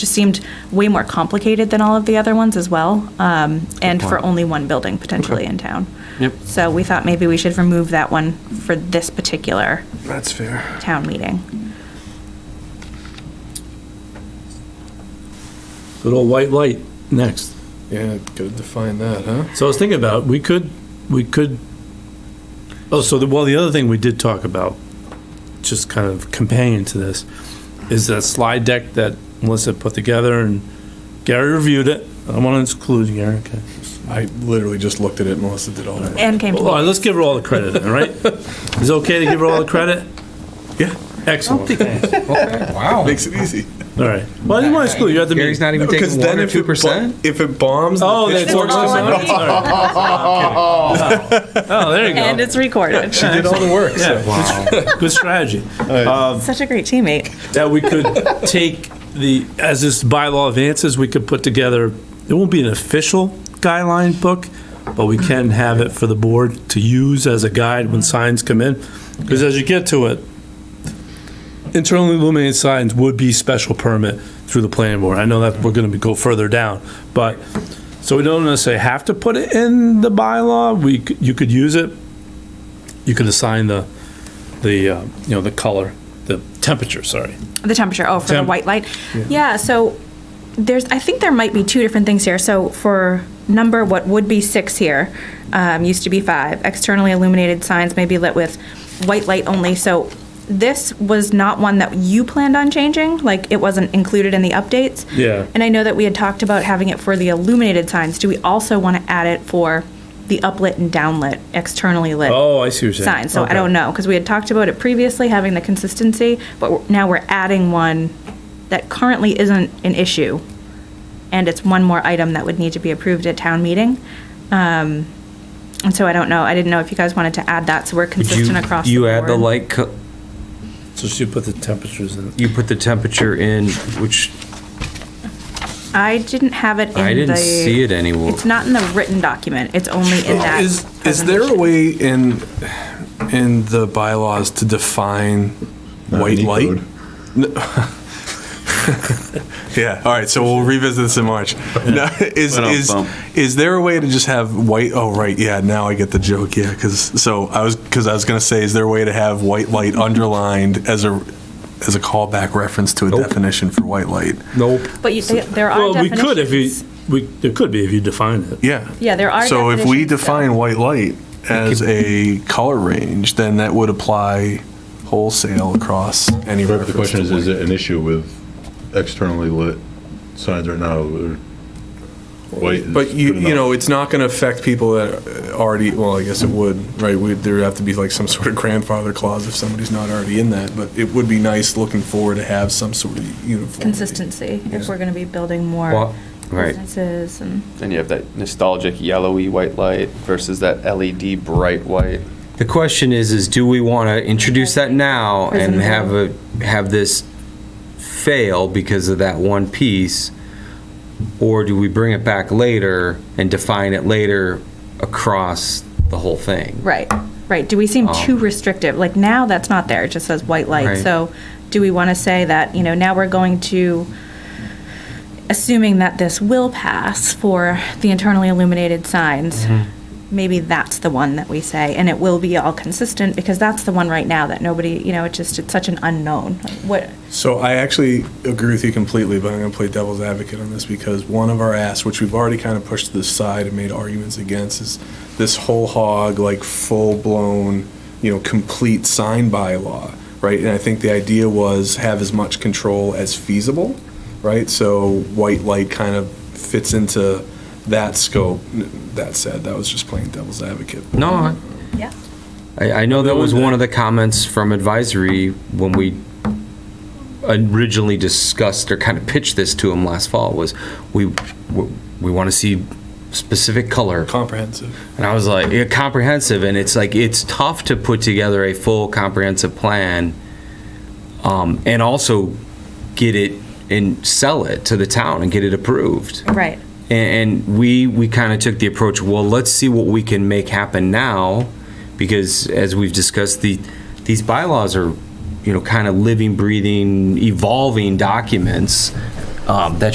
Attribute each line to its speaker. Speaker 1: just seemed way more complicated than all of the other ones as well, um, and for
Speaker 2: point.
Speaker 1: only one building potentially in town.
Speaker 2: Yep.
Speaker 1: So we thought maybe we should remove that one for this particular
Speaker 3: That's fair.
Speaker 1: town meeting.
Speaker 4: Good old white light, next.
Speaker 3: Yeah, gotta define that, huh?
Speaker 4: So I was thinking about, we could, we could, oh, so the, well, the other thing we did talk about, just kind of companion to this, is that slide deck that Melissa put together and Gary reviewed it. I don't want to exclude Gary, okay?
Speaker 3: I literally just looked at it. Melissa did all that.
Speaker 1: And came to
Speaker 4: All right, let's give her all the credit, all right? Is it okay to give her all the credit?
Speaker 3: Yeah.
Speaker 4: Excellent, thanks.
Speaker 5: Wow.
Speaker 3: Makes it easy.
Speaker 4: All right. Well, I didn't want to exclude you, you had to
Speaker 5: Gary's
Speaker 4: meet.
Speaker 5: not even
Speaker 3: Because
Speaker 5: taking one
Speaker 3: then
Speaker 5: or
Speaker 3: if it,
Speaker 5: two
Speaker 3: bo-
Speaker 5: percent.
Speaker 3: if it bombs,
Speaker 4: Oh,
Speaker 3: the
Speaker 4: that's
Speaker 3: pitch
Speaker 1: all
Speaker 4: what it
Speaker 3: works.
Speaker 1: on
Speaker 4: says?
Speaker 1: me.
Speaker 4: All right. Oh, there you
Speaker 1: And
Speaker 4: go.
Speaker 1: it's recorded.
Speaker 3: She did all the work. so.
Speaker 4: Yeah, good strategy.
Speaker 1: Such a great teammate.
Speaker 4: that we could take the, as this bylaw advances, we could put together, it won't be an official guideline book, but we can have it for the board to use as a guide when signs come in. Because as you get to it, internally illuminated signs would be special permit through the planning board. I know that we're gonna be- go further down, but, so we don't necessarily have to put it in the bylaw, we, c- you could use it. You could assign the, the, uh, you know, the color, the temperature, sorry.
Speaker 1: The temperature, oh, for the
Speaker 4: Temp-
Speaker 1: white light. Yeah, so there's, I think there might be two different things here. So for number, what would be six here, um, used to be five. Externally illuminated signs may be lit with white light only. So this was not one that you planned on changing, like it wasn't included in the updates.
Speaker 4: Yeah.
Speaker 1: And I know that we had talked about having it for the illuminated signs. Do we also want to add it for the uplit and downlit, externally lit?
Speaker 4: Oh, I see what you're saying.
Speaker 1: sign, so I
Speaker 4: Okay.
Speaker 1: don't know, because we had talked about it previously, having the consistency, but we're- now we're adding one that currently isn't an issue, and it's one more item that would need to be approved at town meeting. Um, And so I don't know, I didn't know if you guys wanted to add that, so we're consistent across the
Speaker 5: you add the
Speaker 1: board.
Speaker 5: light. Co-
Speaker 4: So she put the temperatures in.
Speaker 5: you put the temperature in, which
Speaker 1: I didn't have it in the.
Speaker 5: I didn't see it anywhere.
Speaker 1: It's not in the written document, it's only in that.
Speaker 3: Is, is there a
Speaker 1: presentation.
Speaker 3: way in, in the bylaws to define white
Speaker 6: any
Speaker 3: light?
Speaker 6: code.
Speaker 3: No- Yeah, all right, so we'll revisit this in March. No, Is,
Speaker 2: Went off
Speaker 3: is,
Speaker 2: bump.
Speaker 3: is there a way to just have white, oh, right, yeah, now I get the joke, yeah, because, so I was, because I was going to say, is there a way to have white light underlined as a, as a callback reference to a
Speaker 5: Nope.
Speaker 3: definition for white light?
Speaker 5: nope.
Speaker 1: But you, they- there are
Speaker 4: Well, we could if you,
Speaker 1: definitions.
Speaker 4: we, there could be if you define it.
Speaker 3: Yeah.
Speaker 1: Yeah, there are
Speaker 3: So if we
Speaker 1: definitions, so-
Speaker 3: define white light as a color range, then that would apply wholesale across any
Speaker 6: Right, but the
Speaker 3: reference
Speaker 6: question is,
Speaker 3: to
Speaker 6: is
Speaker 3: white.
Speaker 6: it an issue with externally lit signs right now? that are white is
Speaker 3: But you,
Speaker 6: good
Speaker 3: you
Speaker 6: enough?
Speaker 3: know, it's not gonna affect people that already, well, I guess it would, right? We'd, there'd have to be like some sort of grandfather clause if somebody's not already in that, but it would be nice looking forward to have some sort of uniform.
Speaker 1: Consistency, if
Speaker 3: Yeah.
Speaker 1: we're gonna be building
Speaker 5: Well,
Speaker 1: more
Speaker 5: right.
Speaker 1: businesses and.
Speaker 2: Then you have that nostalgic yellowy white light versus that LED bright white.
Speaker 5: The question is, is do we want to introduce that now and
Speaker 1: Prism.
Speaker 5: have a have this fail because of that one piece, or do we bring it back later and define it later across the whole thing?
Speaker 1: Right, right. Do we seem
Speaker 5: Um,
Speaker 1: too restrictive? Like now, that's not there. It just says white light.
Speaker 5: Right.
Speaker 1: So do we want to say that, you know, now we're going to, assuming that this will pass for the internally illuminated signs,
Speaker 5: Mm-hmm.
Speaker 1: maybe that's the one that we say, and it will be all consistent because that's the one right now that nobody, you know, it just, it's such an unknown. Like, What,
Speaker 3: So I actually agree with you completely, but I'm going to play devil's advocate on this because one of our asks, which we've already kind of pushed to the side and made arguments against, is this whole hog, like full-blown, you know, complete sign bylaw, right? And I think the idea was have as much control as feasible, right? So white light kind of fits into that scope. That said, that was just playing devil's advocate.
Speaker 5: No, I-
Speaker 1: yeah.
Speaker 5: I, I know that was one of the comments from advisory when we originally discussed or kind of pitched this to him last fall was we we want to see specific color
Speaker 3: Comprehensive.
Speaker 5: and I was like yeah, comprehensive and it's like it's tough to put together a full comprehensive plan um, and also get it and sell it to the town and get it approved
Speaker 1: Right,
Speaker 5: and, and we we kind of took the approach well let's see what we can make happen now because as we've discussed the these bylaws are you know kind of living breathing evolving documents um, that